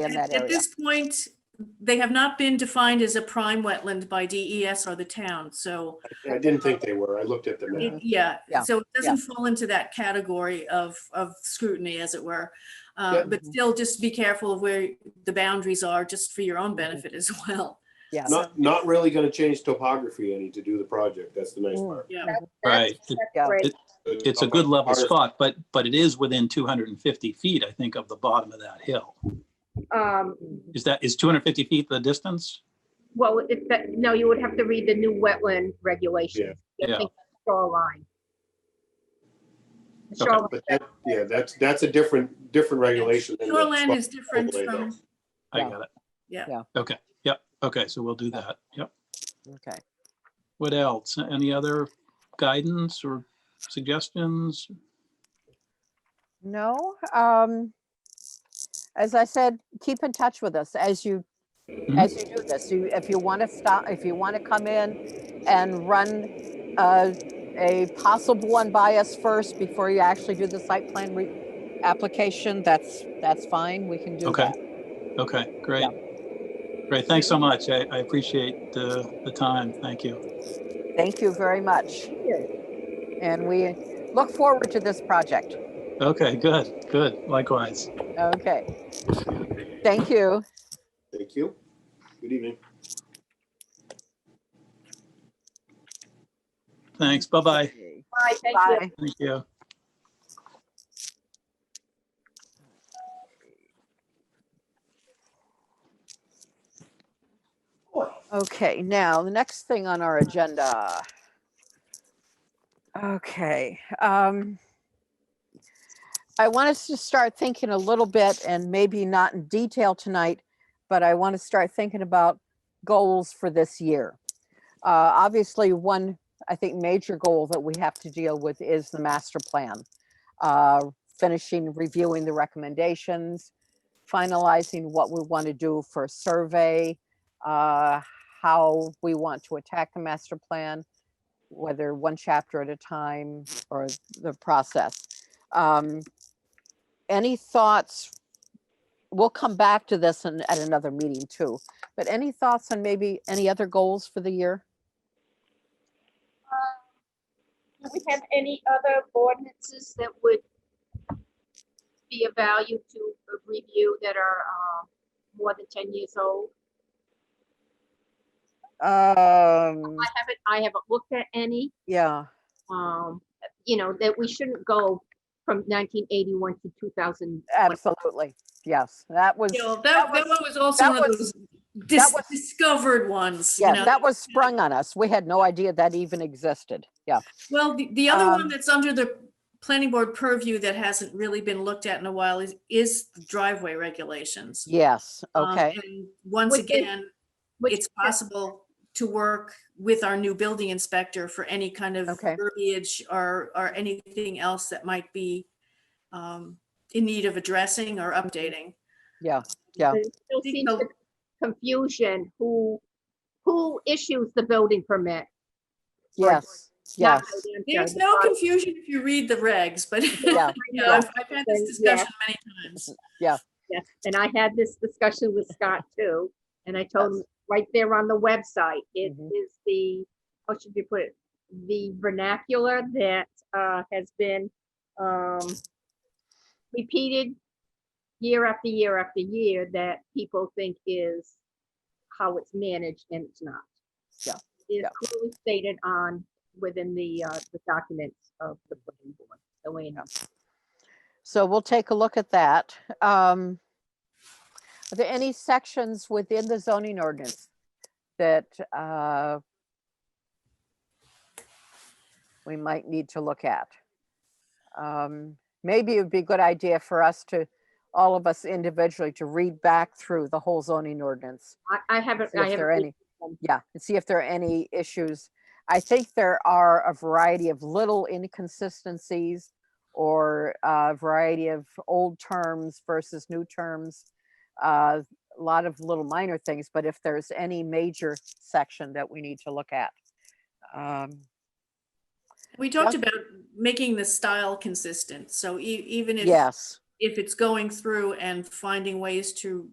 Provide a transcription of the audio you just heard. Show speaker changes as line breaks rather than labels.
in that
At
area.
this point, they have not been defined as a prime wetland by DES or the town, so,
I didn't think they were. I looked at them.
it- yeah.
Mm-hmm. Yeah,
So it
yeah.
doesn't fall into that category of, of scrutiny, as it were.
Yeah.
Uh, But still, just be careful of where the boundaries are, just for your
Mm-hmm.
own benefit as well.
Yes.
Not, not really gonna change topography any to do the project. That's the nice
Mm.
part.
Yeah.
Right.
Yeah.
Right.
It's a good level spot, but, but it is within 250 feet, I think, of the bottom of that hill.
Um,
Is that, is 250 feet the distance?
well, it, that, no, you would have to read the new wetland regulations.
Yeah, yeah.
I think Shoreline. The
Okay.
Shoreline,
But that, yeah, that's, that's a different, different regulation. than the
Shoreland is
spot
different
overlay, though.
from,
I
Yeah.
got it.
Yeah.
Yeah.
Okay, yep, okay, so we'll do that, yep.
Okay.
What else? Any other guidance or suggestions?
No, um, as I said, keep in touch with us as you,
Mhm.
as you do this. You, if you want to stop, if you want to come in and run, uh, a possible one by us first before you actually do the site plan re- application, that's, that's fine. We can do
Okay.
that.
Okay, great. Great, thanks so much. I, I appreciate the, the time. Thank you.
Thank you very much. And we look forward to this project.
Okay, good, good, likewise.
Okay. Thank you.
Thank you. Good evening.
Thanks, bye-bye.
Bye, thank you.
Bye.
Thank you.
Okay, now the next thing on our agenda. Okay, um. I want us to start thinking a little bit and maybe not in detail tonight, but I want to start thinking about goals for this year. Uh, obviously, one, I think, major goal that we have to deal with is the master plan. Uh, finishing reviewing the recommendations, finalizing what we want to do for survey. Uh, how we want to attack the master plan, whether one chapter at a time or the process. Um, Any thoughts? We'll come back to this in, at another meeting too, but any thoughts on maybe any other goals for the year?
Do we have any other ordinances that would be of value to review that are uh, more than 10 years old?
Um,
I haven't, I haven't looked at any,
yeah,
um, you know, that we shouldn't go from 1981 to 2000.
absolutely. Yes, that was,
you know,
that
that, that
was-
one was also
that
one of
was-
those dis-
was-
discovered ones, you
yeah,
know.
that was sprung on us. We had no idea that even existed. Yeah.
Well, the, the other one
Um,
that's under the planning board purview that hasn't really been looked at in a while is, is the driveway regulations.
Yes,
Um,
okay,
and Once
Which is-
again,
which
it's possible to work with our new building inspector for any kind of
Okay.
verbiage or, or anything else that might be um, in need of addressing or updating.
yeah, yeah.
There still seems
so-
to be confusion, who, who issues the building permit?
Yes,
Not
yes,
the land
There's
judge,
no
but-
confusion if you read the regs, but
yeah,
you know, I've
yeah.
I've had this
Yeah.
discussion many times.
Yeah, And I had this discussion with Scott too, and I told him, right there on the website, it
Mhm.
is the, how should you put it? The vernacular that uh, has been um, repeated year after year after year that people think is how it's managed and it's not.
Yeah,
It's
yeah.
clearly stated on, within the, uh, the documents of the planning board, the way it is.
So we'll take a look at that. Um, Are there any sections within the zoning ordinance that uh, we might need to look at? Um, Maybe it would be a good idea for us to, all of us individually, to read back through the whole zoning ordinance.
I, I haven't,
see
I
If there are
haven't,
any, yeah, and see if there are any issues. I think there are a variety of little inconsistencies or a variety of old terms versus new terms. uh, A lot of little minor things, but if there's any major section that we need to look at. um,
We talked
Yeah.
about making the style consistent, so e- even if
Yes,
if it's going through and finding ways to